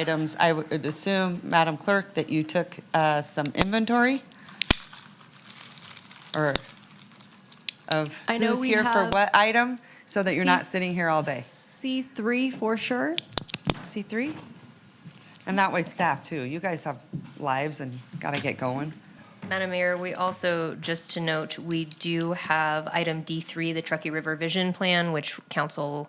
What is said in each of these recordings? items, I would assume, Madam Clerk, that you took uh, some inventory? Or of I know who's we here for have what item, so that you're not C- sitting here all day? C3 for sure. C3? And that way staff too, you guys have lives and gotta get going. Madam Mayor, we also, just to note, we do have item D3, the Truckee River Vision Plan, which council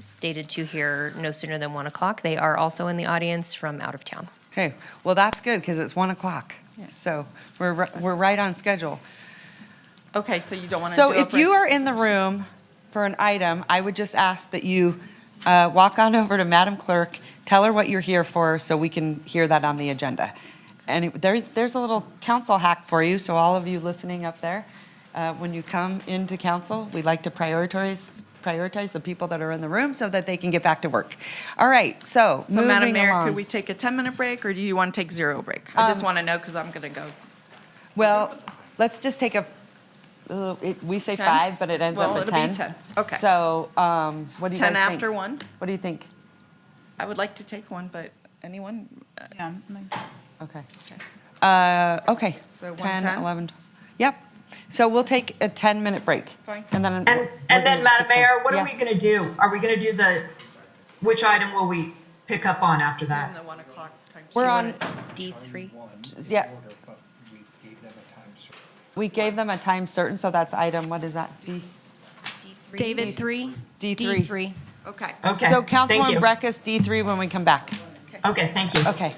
stated to hear no sooner than 1 o'clock. They are also in the audience from out of town. Okay, well, that's good, because it's 1 o'clock, so we're, ri- we're right on schedule. Okay, so you don't want to So if you are in the room for an item, I would just ask that you uh, walk on over to Madam Clerk, tell her what you're here for, so we can hear that on the agenda. And it- there's, there's a little council hack for you, so all of you listening up there, uh, when you come into council, we like to prioritize, prioritize the people that are in the room so that they can get back to work. All right, so So Madam moving Mayor, could along. Um, we take a 10-minute break, or do you want to take zero break? I just want to know, because I'm going to go. Well, let's just take a, uh, it- we say 10? five, but it ends up Well, at 10. it'll be 10. Okay. So um, what do you guys think? 10 after 1? What do you think? I would like to take one, but anyone? Uh, Yeah, I'm like- Okay. Uh, Okay. So 10, 1:10? 11. Yep. So we'll take a 10-minute break. Fine. And then. we're And, and gonna then, just Madam keep going. Mayor, what are we Yes. going to do? Are we going to do the, which item will we pick up on after On that? the 1 o'clock time. We're slot. on, D3? yeah. order, but we gave them a time certain. we gave them a time certain, so that's item, what is that? D? David, 3? D3. D3. Okay. Okay, So thank Councilwoman you. Breckus, D3 when we come back. Okay, thank you. Okay.